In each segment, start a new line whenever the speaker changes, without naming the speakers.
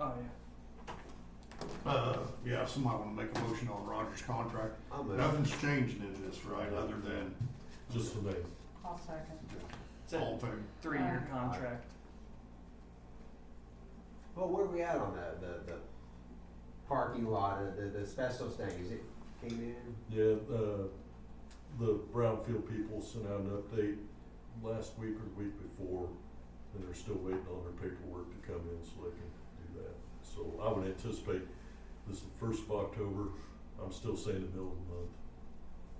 Oh, yeah.
Uh, yeah, somebody wanna make a motion on Roger's contract.
I'll move.
Nothing's changed in this, right, other than
Just the name.
I'll second.
It's
all in
a
favor?
three-year
Uh,
contract.
Well, where are we at on the, the, the parking lot, uh, the, the asbestos thing, is it came in?
Yeah, uh, the Brownfield people sent out an update last week or the week before, and they're still waiting on their paperwork to come in so they can do that. So I would anticipate this is the first of October, I'm still saying the middle of the month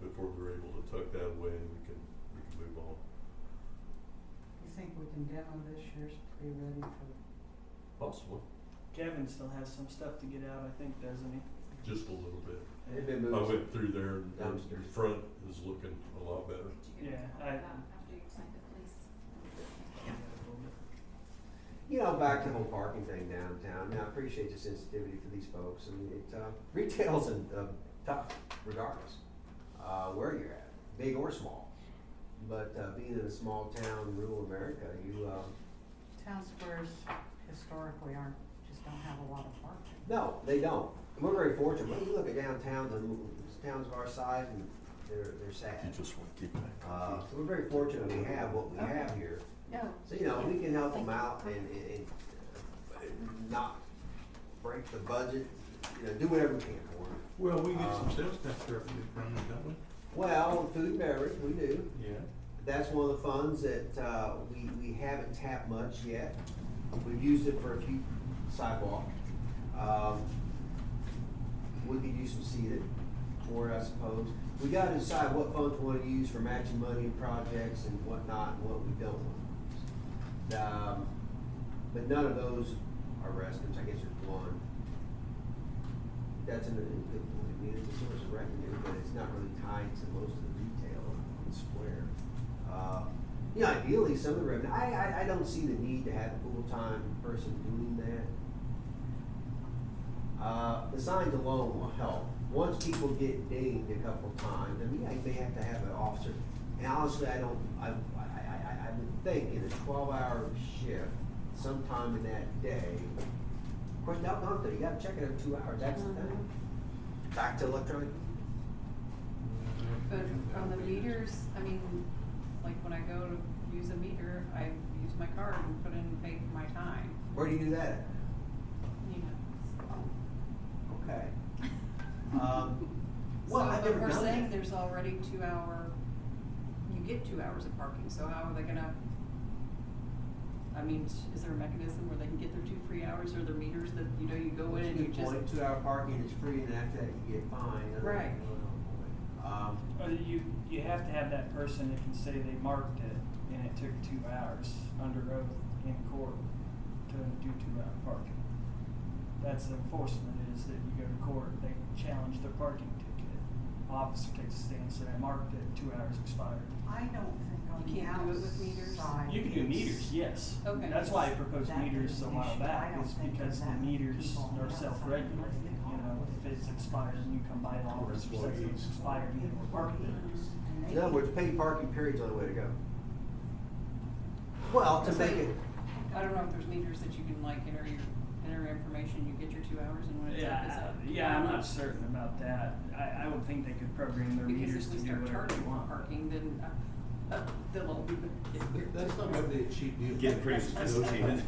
before they're able to tuck that away and we can, we can move on.
You think we can demo this year's pretty ready for,
Possible,
Kevin still has some stuff to get out, I think, doesn't
just a little bit.
he?
It been
I
moved,
went through there and the
Dumpsters.
front is looking a lot better.
Yeah, I-
After you explain the police.
you know, back to the whole parking thing downtown, now, I appreciate the sensitivity for these folks, I mean, it, uh, retail's in, uh, tough regardless, uh, where you're at, big or small. But, uh, being in a small town, rural America, you, uh,
town squares historically aren't, just don't have a lot of parking.
No, they don't. And We're very fortunate. When you look at downtowns and towns of our size, and they're, they're sad.
just wanna keep that.
Uh, so we're very fortunate we have what we have here.
No,
So, you know, we can help them out and, and, and, uh, not break the budget, you know, do whatever we can for them.
Well, we get some
Uh,
sales tax revenue from it, don't we?
Well, food and beverage, we do.
Yeah.
That's one of the funds that, uh, we, we haven't tapped much yet. We've used it for a few sidewalk. Um, we could use some seeded for, it, I suppose. We gotta decide what funds we wanna use for matching money and projects and whatnot, and what we don't want. Um, but none of those are restrooms, I guess there's one. That's an, I mean, it's a source of revenue, but it's not really tied to most of the retail on the square. Uh, You know, ideally, some of the revenue, I, I, I don't see the need to have a full-time person doing that. Uh, the signs alone will help. Once people get dinged a couple times, I mean, yeah, you may have to have an officer. And honestly, I don't, I, I, I, I would think in a twelve-hour shift, sometime in that day, of course, now, not that, you gotta check it every two hours, that's the thing. Back to electronic,
but on the meters, I mean, like when I go to use a meter, I use my card and put in and pay for my time,
where do you do that?
you know.
Okay. Um,
so-
well, I've
So,
never
but we're
done
saying
that.
there's already two hour, you get two hours of parking, so how are they gonna? I mean, is there a mechanism where they can get their two free hours or their meters that, you know, you go in and you just.
Two-hour parking is free, and after that, you get fined. I don't
Right.
know. Um,
Uh, You, you have to have that person that can say they marked it and it took two hours under oath in court to do two-hour parking. That's the enforcement is that you go to court, they challenge their parking ticket. Officer takes a stand, said I marked it, two hours expired.
I don't think on
You
the
can't do it with meters?
outside.
You can do
it's-
meters, yes.
Okay.
That's why I proposed
That
meters a while
definition, I
back,
don't
is
think
because the
that
meters
people on the
are
outside
self-regulated, you know, if it's expired and you come by an office, it says it's expired, you can park it.
And they
In other
can-
words, paid parking period's the only way to go. Well, to make it,
I don't know if there's meters that you can like enter your, enter your information, you get your two hours and when it's up, it's
Yeah,
up.
yeah, I'm not certain about that. I, I would think they could program their
Because
meters
if
to
we
do whatever
start
they
charging more
want.
parking, then, uh, uh, they'll all be.
That's not gonna be a cheap deal.
Getting pretty
associated.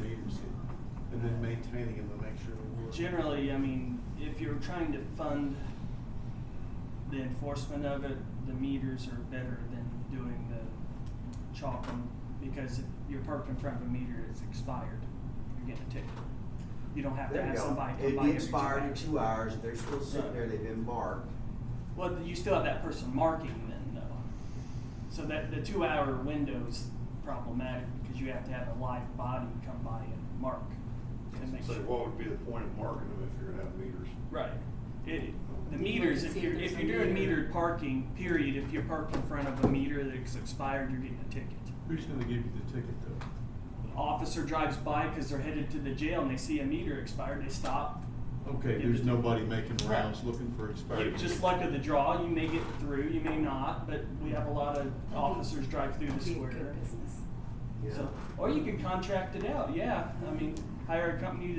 And then maintaining them to make sure they work.
Generally, I mean, if you're trying to fund the enforcement of it, the meters are better than doing the chalking, because if you're parked in front of a meter, it's expired, you're getting a ticket. You don't have to
there you
have
go.
somebody come
It'd
by
be
every two
expired in
hours.
two hours, they're still sitting there, they've been marked.
Well, you still have that person marking then, though. So that, the two-hour window's problematic, because you have to have a live body come by and mark to make
So
sure.
what would be the point of marking them if you're gonna have meters?
Right. It, the meters, if
See if
you're,
there's
if
a
you're doing
meter.
metered parking, period, if you're parked in front of a meter that's expired, you're getting a ticket.
Who's gonna give you the ticket though?
Officer drives by because they're headed to the jail and they see a meter expired, they stop.
Okay, there's nobody making rounds looking for
You
expired.
just luck of the draw, you may get through, you may not, but we have a lot of officers drive through the
Be
square.
Good business.
you know?
So, or you could contract it out, yeah. I mean, hire a company to